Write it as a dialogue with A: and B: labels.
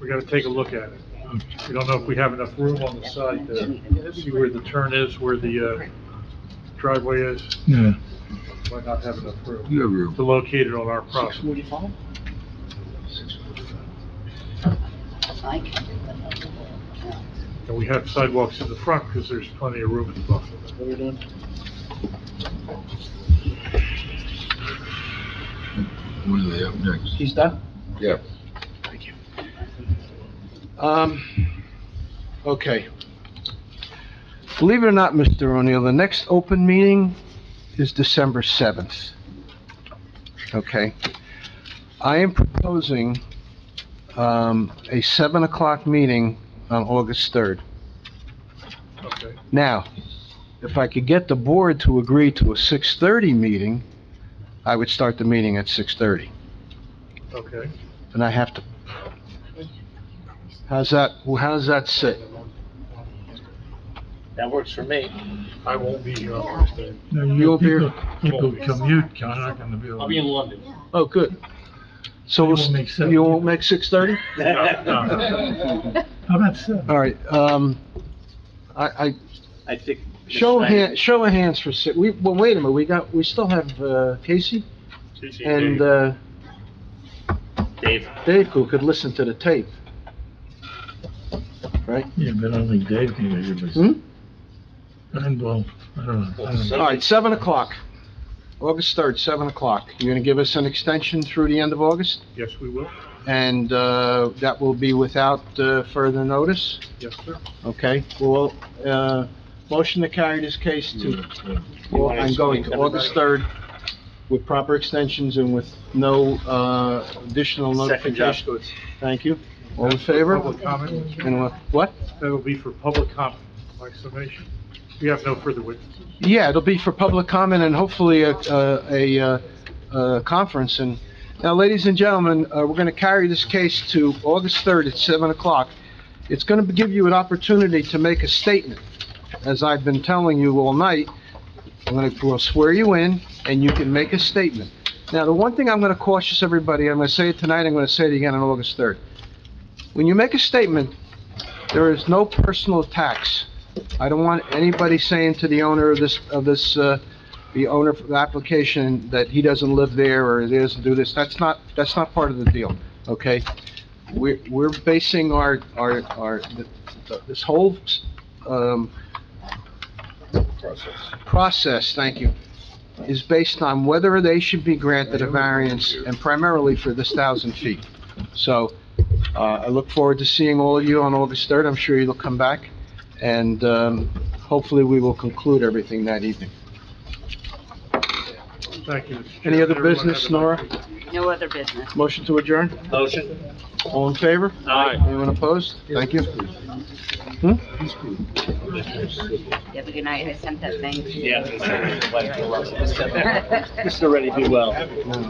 A: we gotta take a look at it. We don't know if we have enough room on the side to see where the turn is, where the uh, driveway is,
B: Yeah,
A: might not have enough room
B: you have room.
A: to locate it on our property.
C: forty-five?
D: I can do it.
A: And we have sidewalks in the front, because there's plenty of room in the buffer.
C: Very done.
B: What do they have next?
C: He's done?
B: Yeah.
C: Thank you. Um, okay. Believe it or not, Mr. O'Neill, the next open meeting is December 7th. Okay? I am proposing, um, a 7 o'clock meeting on August 3rd.
A: Okay.
C: Now, if I could get the board to agree to a 6:30 meeting, I would start the meeting at 6:30.
A: Okay.
C: and I have to. How's that, well, how's that sit?
E: That works for me.
A: I won't be here on Thursday.
B: No,
C: You'll be-
B: people- People come, you, John, not gonna be able.
E: I'll be in London.
C: Oh, good. So
B: You
C: we'll,
B: won't make
C: s-
B: seven.
C: you won't make six thirty?
B: How about seven?
C: All right, um, I, I,
E: I think.
C: show of hand, show of hands for six, we, well, wait a minute, we got, we still have, uh, Casey and, uh,
E: Dave.
C: Dave who could listen to the tape. Right?
B: Yeah, but I don't think Dave can hear you, but-
C: Hmm?
B: And, Hmm? well, I don't know. I don't know.
C: All right, seven o'clock, August third, seven o'clock. You're gonna give us an extension through the end of August?
A: Yes, we will.
C: And, uh, that will be without, uh, further notice?
A: Yes, sir.
C: Okay, well, uh, motion to carry this case to,
B: Yeah,
C: well, I'm going to August 3rd with proper extensions and with no, uh, additional
E: Second job.
C: notification. Thank you. All in favor?
A: Public comment?
C: Anyone- What?
A: That'll be for public comment, my summation. We have no further witnesses.
C: Yeah, it'll be for public comment and hopefully a, a, a, uh, a conference and, now, ladies and gentlemen, uh, we're gonna carry this case to August 3rd at 7 o'clock. It's gonna give you an opportunity to make a statement, as I've been telling you all night. I'm gonna, we'll swear you in and you can make a statement. Now, the one thing I'm gonna cautious everybody, I'm gonna say it tonight, I'm gonna say it again on August 3rd. When you make a statement, there is no personal attacks. I don't want anybody saying to the owner of this, of this, uh, the owner of the application that he doesn't live there or it is, do this, that's not, that's not part of the deal, okay? We're, we're basing our, our, our, th- th- this whole, um, Process, thank you, is based on whether they should be granted a variance and primarily for this thousand feet. So, uh, I look forward to seeing all of you on August third, I'm sure you'll come back, and, um, hopefully we will conclude everything that evening.
A: Thank you. Mr.
C: Any other
A: Chairman. Everyone
C: business,
A: have a nice
C: Nora?
A: evening.
D: No other business.
C: Motion to adjourn?
E: Motion?
C: All in favor?
E: Aye.
C: Anyone opposed? Thank you.
D: You Have a good night. I sent that thing.
E: Yeah.
D: Yeah.
E: This is already be well.